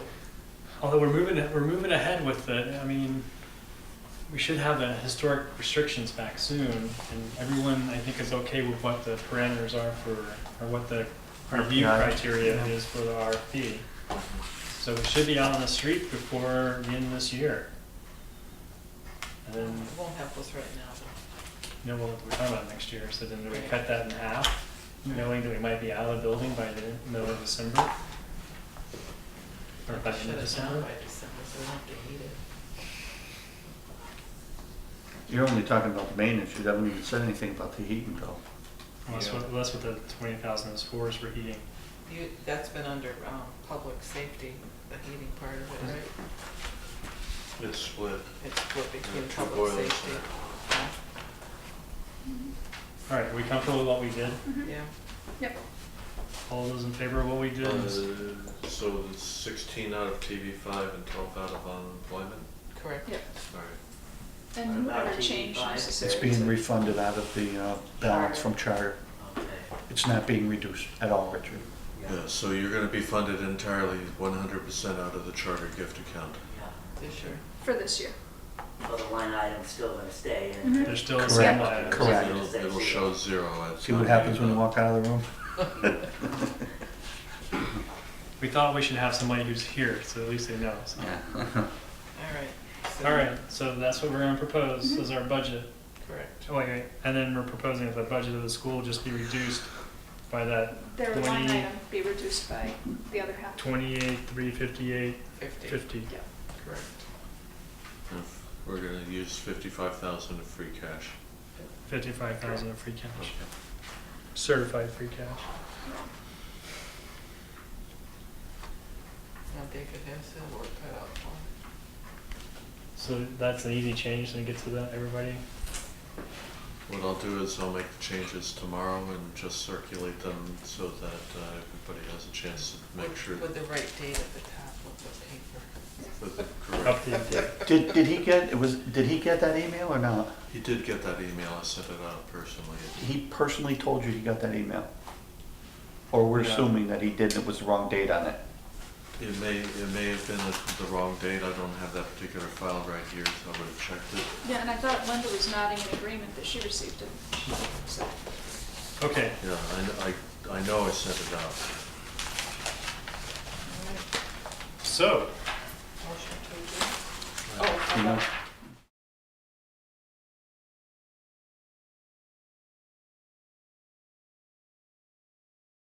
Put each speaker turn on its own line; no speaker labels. Although we're moving, we're moving ahead with it, I mean, we should have the historic restrictions back soon, and everyone, I think, is okay with what the parameters are for, or what the review
RPI.
criteria is for the RFP. So we should be out on the street before the end of this year. And
It
then,
won't help us right now, but
you know, we'll- we're talking about next year, so then do we cut that in half, knowing that we might be out of the building by the middle of December? Or by
we
the end
shut
of
it down
December?
by December, so we don't have to heat it.
You're only talking about the maintenance, you haven't even said anything about the heating bill.
Well, That's what, well, that's what the twenty thousand is for, is for heating.
You, that's been under, um, public safety, the heating part of it, right?
It's split.
It's what
There are
became
two
public
boilers
safety.
All right, are we comfortable with what we did?
Yeah, Yeah,
Yep.
All those in favor of what we did?
Uh, So it's sixteen out of TV five and twelve out of unemployment,
correct.
Yep.
sorry.
And whatever
RTE
change
five.
It's
necessary.
being refunded out of the uh, balance from charter.
Okay.
It's not being reduced at all, Richard.
Yeah.
Yeah, so you're gonna be funded entirely one hundred percent out of the charter gift account.
yeah.
This year.
For this year.
Well, the line item's still gonna stay in.
Mhm.
There's still
Correct.
some items.
Correct.
It'll, it'll show zero. It's
See what
not
happens when you
being
walk out of the room?
We thought we should have somebody who's here, so at least they know. so.
All right. so-
All right, so that's what we're gonna propose, is our budget.
Correct.
Oh, wait, wait, and then we're proposing that the budget of the school just be reduced by that
Their line
Twenty-
item be reduced by the other half.
twenty-eight, three fifty-eight,
Fifty.
fifty.
Yep.
Correct.
done. We're gonna use fifty-five thousand of free cash.
Fifty-five thousand of free cash, certified free cash.
Now David has his work cut out for him.
So that's an easy change, then get to that, everybody?
What I'll do is I'll make the changes tomorrow and just circulate them so that uh, everybody has a chance to make
With-
sure
With the right date at the top of the paper.
with the correct.
Update that.
Did, did he get, it was, did he get that email or not?
He did get that email, I sent it out personally.
He personally told you he got that email? Or we're
Yeah.
assuming that he did and it was the wrong date on it?
It may, it may have been the- the wrong date, I don't have that particular file right here, so I would have checked it.
Yeah, and I thought Linda was nodding in agreement that she received it. So,
Okay,
Yeah, I, kn- I, I know I sent it out.
so,
Motion to adjourn?
Uh,
Oh,
You know?
how